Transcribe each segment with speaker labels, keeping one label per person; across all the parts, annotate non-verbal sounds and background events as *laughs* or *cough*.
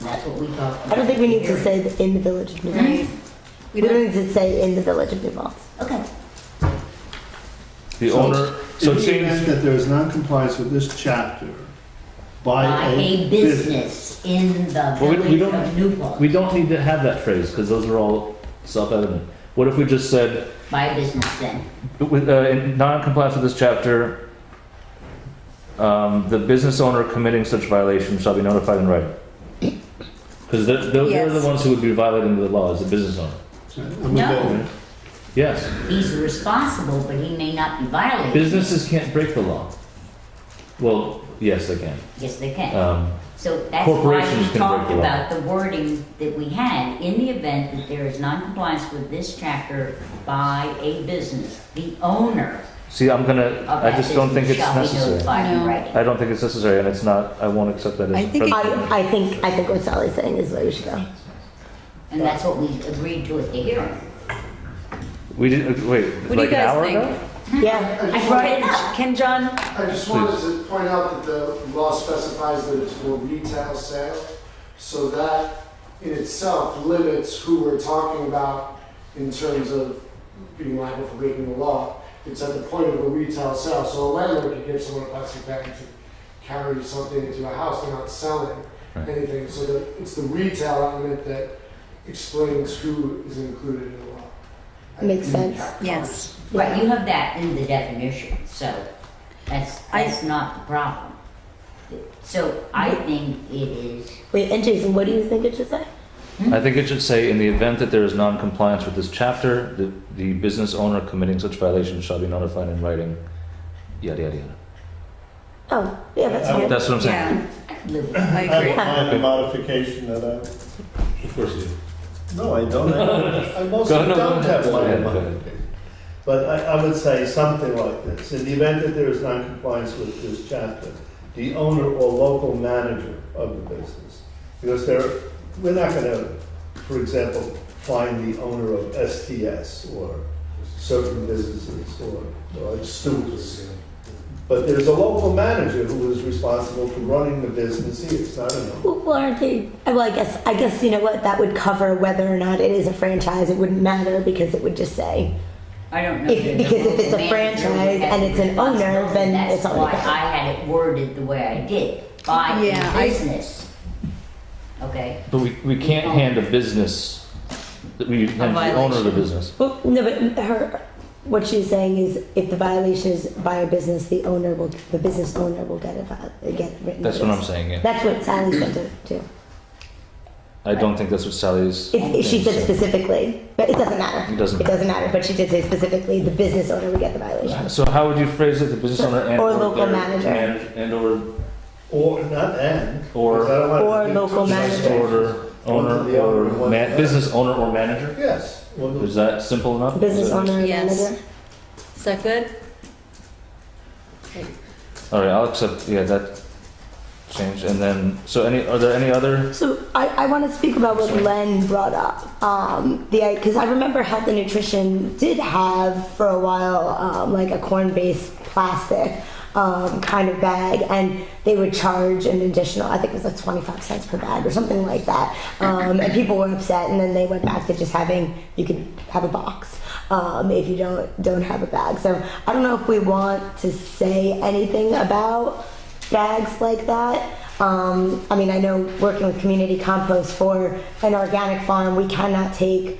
Speaker 1: That's what we got.
Speaker 2: I don't think we need to say the- in the village of New Paltz.
Speaker 1: Mm-hmm.
Speaker 2: We don't need to say in the village of New Paltz.
Speaker 1: Okay.
Speaker 3: The
Speaker 4: So-
Speaker 3: owner,
Speaker 4: In
Speaker 3: so
Speaker 4: the event
Speaker 3: change,
Speaker 4: that there is non-compliance with this chapter
Speaker 1: By a business in the
Speaker 3: Well, we- we
Speaker 1: village
Speaker 3: don't-
Speaker 1: of Newport.
Speaker 3: we don't need to have that phrase because those are all self-evident. What if we just said,
Speaker 1: By a business then.
Speaker 3: with, uh, in non-compliance with this chapter, um, the business owner committing such violation shall be notified in writing? Because they're, they're they're the
Speaker 5: Yes.
Speaker 3: ones who would be violating the law as a business owner.
Speaker 4: I'm
Speaker 1: No.
Speaker 4: available.
Speaker 3: Yes,
Speaker 1: He's responsible, but he may not be violating.
Speaker 3: businesses can't break the law. Well, yes, they can.
Speaker 1: Yes, they can.
Speaker 3: Um,
Speaker 1: So that's why
Speaker 3: corporations
Speaker 1: we
Speaker 3: can
Speaker 1: talked
Speaker 3: break the law.
Speaker 1: about the wording that we had. In the event that there is noncompliance with this chapter by a business, the owner
Speaker 3: See, I'm gonna,
Speaker 1: of
Speaker 3: I
Speaker 1: that
Speaker 3: just don't think
Speaker 1: business shall
Speaker 3: it's
Speaker 1: be
Speaker 3: necessary.
Speaker 1: notified in
Speaker 5: No.
Speaker 1: writing.
Speaker 3: I don't think it's necessary and it's not, I won't accept that
Speaker 5: I
Speaker 3: as.
Speaker 5: think it-
Speaker 3: precedent.
Speaker 2: I, I think, I think what Sally's saying is where we should go.
Speaker 1: And that's what we agreed to at the hearing.
Speaker 3: We didn't, wait,
Speaker 5: What do you
Speaker 3: like an
Speaker 5: guys
Speaker 3: hour
Speaker 5: think?
Speaker 3: ago?
Speaker 2: Yeah,
Speaker 6: I
Speaker 5: I
Speaker 6: just
Speaker 5: brought
Speaker 6: wanted-
Speaker 5: it up. Can John?
Speaker 6: I just wanted to point out that the law specifies that it's for retail sale, so that in itself limits who we're talking about in terms of being liable for breaking the law. It's at the point of a retail sale, so a landlord could give someone a plastic bag to carry something into a house, they're not selling
Speaker 3: Right.
Speaker 6: anything. So that it's the retail element that explains who is included in the law.
Speaker 2: Makes sense.
Speaker 5: Yes.
Speaker 1: Right, you have that in the definition, so that's,
Speaker 5: I-
Speaker 1: that's not the problem. So I think it is,
Speaker 2: wait, and Jason, what do you think it should say?
Speaker 3: I think it should say, in the event that there is non-compliance with this chapter, the, the business owner committing such violation shall be notified in writing, yada, yada, yada.
Speaker 2: Oh, yeah, that's fine.
Speaker 3: That's what I'm saying.
Speaker 5: Yeah,
Speaker 1: I could live with
Speaker 5: I
Speaker 1: that.
Speaker 5: agree.
Speaker 7: I have a modification that I,
Speaker 3: Of course you do.
Speaker 7: no, I
Speaker 3: *laughs*
Speaker 7: don't, I mostly
Speaker 3: Go- no, go
Speaker 7: don't
Speaker 3: ahead.
Speaker 7: have
Speaker 3: Go
Speaker 7: one
Speaker 3: ahead,
Speaker 7: in
Speaker 3: go
Speaker 7: mind.
Speaker 3: ahead.
Speaker 7: But I, I would say something like this, in the event that there is noncompliance with this chapter, the owner or local manager of the business, because there, we're not gonna, for example, find the owner of STS or certain businesses or, or students. But there's a local manager who is responsible for running the business here, it's not an owner.
Speaker 2: Well, aren't they? uh, Well, I guess I guess you know what that would cover whether or not it is a franchise. It wouldn't matter because it would just say
Speaker 1: I don't know.
Speaker 2: If-
Speaker 1: that the
Speaker 2: because if it's a
Speaker 1: manager
Speaker 2: franchise
Speaker 1: has
Speaker 2: and it's an owner,
Speaker 1: responsibility.
Speaker 2: then it's all
Speaker 1: That's
Speaker 2: right.
Speaker 1: why I had it worded the way I did, by
Speaker 5: Yeah, I-
Speaker 1: a business. Okay,
Speaker 3: But we, we can't hand a business, we hand the owner of the
Speaker 1: violation.
Speaker 3: business.
Speaker 2: Well, no, but her, what she's saying is, if the violation is by a business, the owner will, the business owner will get a viol, get written.
Speaker 3: That's what I'm
Speaker 2: notice.
Speaker 3: saying, yeah.
Speaker 2: That's what Sally said to- too.
Speaker 3: I don't think that's what Sally's,
Speaker 2: It, it- she said specifically, but it doesn't matter.
Speaker 3: it doesn't.
Speaker 2: It doesn't matter, but she did say specifically, the business owner would get the violation.
Speaker 3: So how would you phrase it, the business owner and?
Speaker 2: Or local
Speaker 3: their
Speaker 2: manager.
Speaker 3: manag- And or,
Speaker 7: Or, not and.
Speaker 3: Or-
Speaker 7: because I don't want to
Speaker 2: or
Speaker 7: do
Speaker 2: local
Speaker 7: two
Speaker 2: manager.
Speaker 7: things.
Speaker 3: order,
Speaker 7: One to the
Speaker 3: owner
Speaker 7: owner,
Speaker 3: or,
Speaker 7: one to the
Speaker 3: man,
Speaker 7: other.
Speaker 3: business owner or manager?
Speaker 7: Yes. one to-
Speaker 3: Is that simple enough?
Speaker 2: Business
Speaker 3: Is it-
Speaker 2: owner and
Speaker 5: Yes.
Speaker 2: manager.
Speaker 5: Is that good?
Speaker 3: All right, I'll accept, yeah, that change, and then, so any, are there any other?
Speaker 2: So I, I want to speak about what Len brought up. Um, the because I remember health and nutrition did have for a while um, like a corn-based plastic um, kind of bag, and they would charge an additional. I think it was like twenty-five cents per bag or something like that. Um, and people were upset, and then they went back to just having you could have a box um, if you don't don't have a bag. So I don't know if we want to say anything about bags like that. Um, I mean, I know working with community compost for an organic farm, we cannot take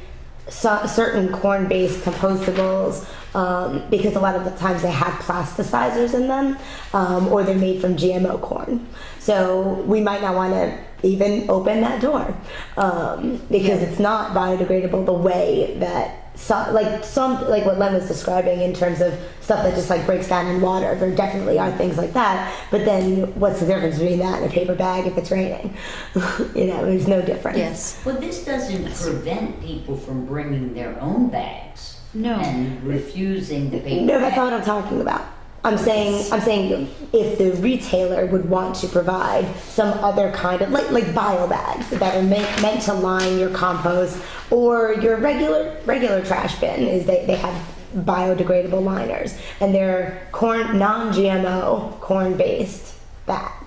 Speaker 2: so- certain corn-based compostables um, because a lot of the times they have plasticizers in them, um, or they're made from GMO corn. So we might not want to even open that door um, because it's not biodegradable the way that some, like some like what Len was describing in terms of stuff that just like breaks down in water. There definitely are things like that, but then what's the difference between that and a paper bag if it's raining? *laughs* you know, there's no difference.
Speaker 5: Yes.
Speaker 1: well, this doesn't prevent people from bringing their own bags
Speaker 5: No.
Speaker 1: and refusing the paper
Speaker 2: No, that's
Speaker 1: bag.
Speaker 2: not what I'm talking about. I'm saying I'm saying if the retailer would want to provide some other kind of like like bio bags that are meant, meant to line your compost or your regular regular trash bin is they, they have biodegradable liners and they're corn non-GMO corn based bags.